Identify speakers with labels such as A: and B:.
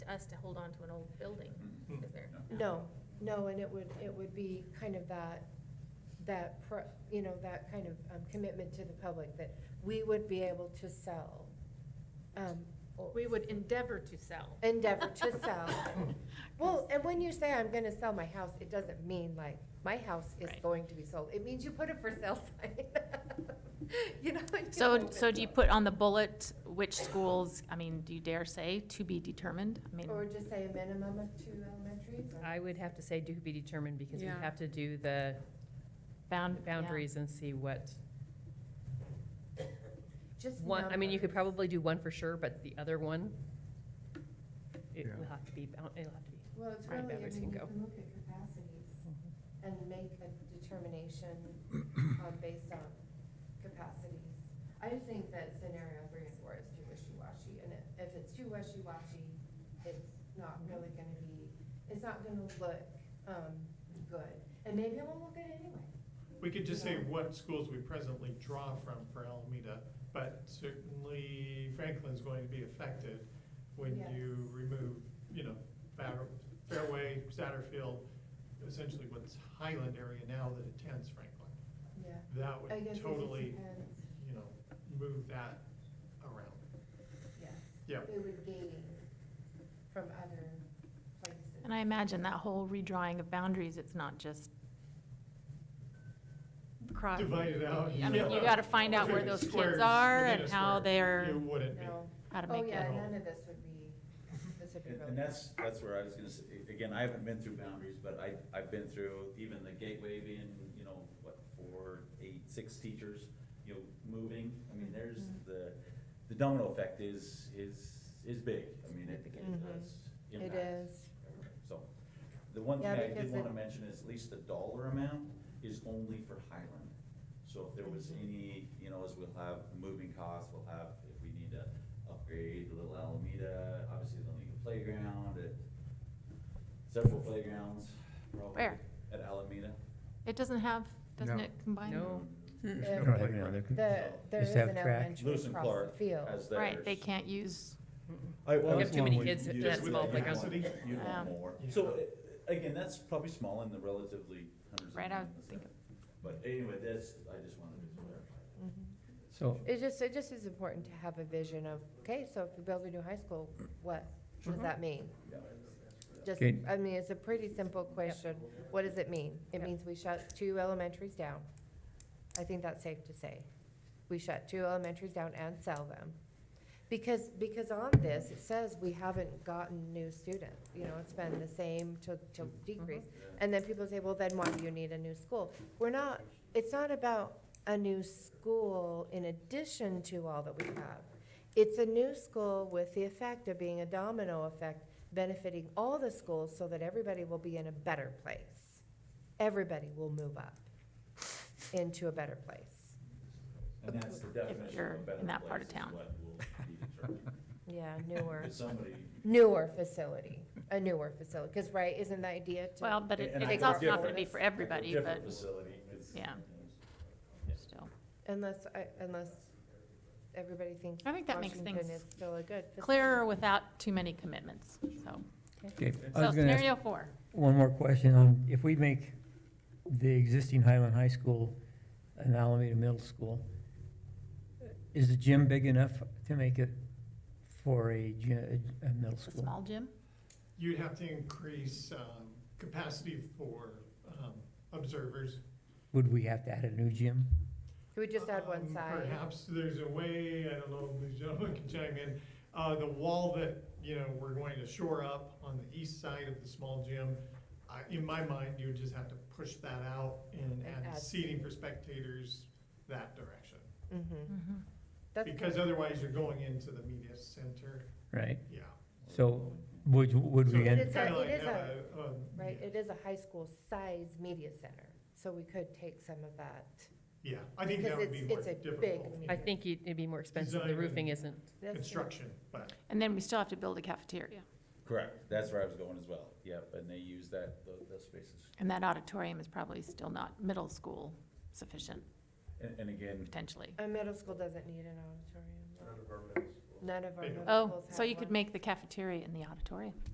A: us to hold on to an old building,
B: Mm-hmm.
C: Mhm.
A: is there?
D: No, no, and it would, it would be kind of that, that, pro- you know, that kind of um, commitment to the public that we would be able to sell. um, or
A: We would endeavor to sell.
D: Endeavor to sell. Well, and when you say I'm gonna sell my house, it doesn't mean like, my house is
E: Right.
D: going to be sold. It means you put a for sale sign. You know? and you
E: So,
D: hope
E: so
D: it's
E: do you
D: sold.
E: put on the bullet which schools, I mean, do you dare say to be determined? I
D: Or
E: mean,
D: just say a minimum of two elementaries? or-
F: I would have to say do be determined, because we
B: Yeah.
F: have to do the
E: bound. yeah.
F: boundaries and see what,
D: Just
F: one, I mean, you could
D: numbers.
F: probably do one for sure, but the other one, it
C: Yeah.
F: will have to be, bound- it'll have to be.
D: Well, it's
F: Right,
D: really, I
F: boundaries
D: mean,
F: can
D: you
F: go.
D: can look at capacities and make a determination on, based on capacities. I just think that scenario three and four is too wishy-washy, and if- if it's too wishy-washy, it's not really gonna be, it's not gonna look, um, good. And maybe I won't look at it anyway.
C: We could just say
D: Yeah.
C: what schools we presently draw from for Alameda, but certainly Franklin's going to be affected when you
D: Yes.
C: remove, you know, Fair- Fairway, Satterfield, essentially what's Highland area now that attends Franklin.
D: Yeah.
C: That would
D: I guess it just
C: totally,
D: depends.
C: you know, move that around.
D: Yes.
C: Yeah.
D: It would gain from other places.
E: And I imagine that whole redrawing of boundaries, it's not just cross.
C: Divide it out.
E: Uh, I mean, you gotta find out where those kids
C: Squares
E: are
C: within
E: and
C: a
E: how
C: square.
E: they're-
C: It wouldn't be.
D: No.
E: How to
D: Oh,
E: make
D: yeah,
E: it.
D: none of this would be, this would be
B: And
D: really.
B: and that's, that's where I was gonna say, again, I haven't been through boundaries, but I, I've been through even the gateway being, you know, what, four, eight, six teachers, you know, moving. I mean, there's the, the domino effect is, is, is big. I mean, it it
D: Significant.
B: does
D: Mm-hmm. It
B: impact.
D: is.
B: everything. So, the one thing
D: Yeah,
B: I
D: because
B: did wanna
D: it-
B: mention is at least the dollar amount is only for Highland. So if there was
D: Mm-hmm.
B: any, you know, as we'll have moving costs, we'll have, if we need to upgrade Little Alameda, obviously they'll need a playground, at several playgrounds, probably.
E: Where?
B: At Alameda.
E: It doesn't have, doesn't
G: No.
E: it combine?
F: No.
D: There's
G: There's
D: no
G: no playground. There could-
D: The, there
G: Just
D: is
G: have
D: an
G: track.
D: elementary
B: Lewis and
D: across the
B: Clark
D: field.
B: as theirs.
E: Right, they can't use,
B: I- I
F: We have
B: was
F: too many
B: wondering,
F: kids at
B: you
C: that
B: just-
C: small
B: you'd want-
C: playground.
B: You'd
E: Yeah.
B: want more.
C: Yeah.
B: So, uh, again, that's probably small in the relatively hundreds of.
E: Right, I would
B: millions.
E: think-
B: But anyway, that's, I just wanted to clarify that.
G: So,
D: Mm-hmm. It just, it just is important to have a vision of, okay, so if you build a new high school, what does
B: Mm-hmm.
D: that mean? Just,
G: Okay.
D: I mean, it's a pretty simple question. What does it mean? It
F: Yep.
D: means we shut two elementaries down. I think that's safe to say. We shut two elementaries down and sell them. Because, because on this, it says we haven't gotten new students. You know, it's been the same to, to decrease. And then people say, well, then why do you need a new school? We're not, it's not about a new school in addition to all that we have. It's a new school with the effect of being a domino effect benefiting all the schools so that everybody will be in a better place. Everybody will move up into a better place.
B: And that's the definition
E: you're
B: of a better place.
E: in that part of
B: is
E: town.
B: what will be determined.
D: Yeah, newer,
B: If somebody.
D: newer facility, a newer facility, because, right, isn't the idea to?
E: well, but it-
B: and I
E: it's
B: go
E: also not gonna
B: different-
E: be for
B: I go
E: everybody,
B: Different
E: but
B: facility. 'cause-
E: Yeah. still.
D: Unless, I- unless everybody thinks.
E: I think that makes
D: Washington
E: things
D: is still a good facility.
E: Clearer without too many commitments, so.
G: okay, I
E: So
G: was gonna
E: scenario
G: ask
E: four,
G: one more question on, if we make the existing Highland High School an Alameda Middle School, is the gym big enough to make it for a, gy- a a middle
E: it's a
G: school?
E: small gym,
C: You'd have to increase um, capacity for um, observers.
G: Would we have to add a new gym?
D: Could we just add one
C: Um,
D: side?
C: Perhaps there's a way, I don't know, if these gentlemen can chime in, uh, the wall that, you know, we're going to shore up on the east side of the small gym. I- In my mind, you would just have to push that out and
D: And
C: add
D: add
C: seating for spectators that direction.
E: Mm-hmm.
D: Mhm. That's
C: Because otherwise, you're going into the media center,
G: Right,
C: yeah.
G: so would, would
C: So
G: we,
D: But
G: end-
D: it's a-
C: kinda like
D: it is a-
C: have a- um, a-
D: Right, it is a high school size media center, so we could take some of that.
C: Yeah, I think that
D: Because
C: would be
D: it's-
C: more
D: it's a big
C: difficult.
D: media
C: in
F: I think it'd it'd be more expensive, the
C: Design.
F: roofing isn't.
D: That's-
C: Construction, but.
E: and then we still have to build a cafeteria,
B: Correct, that's where I was going as well, yep, and they use that, tho- those spaces.
E: and that auditorium is probably still not middle school sufficient,
B: And, and again,
E: potentially.
D: A middle school doesn't need an auditorium.
H: None of our middle schools.
D: None of our
C: They don't.
D: middle schools
E: Oh,
D: have
E: so you could
D: one.
E: Oh, make the cafeteria in the auditorium.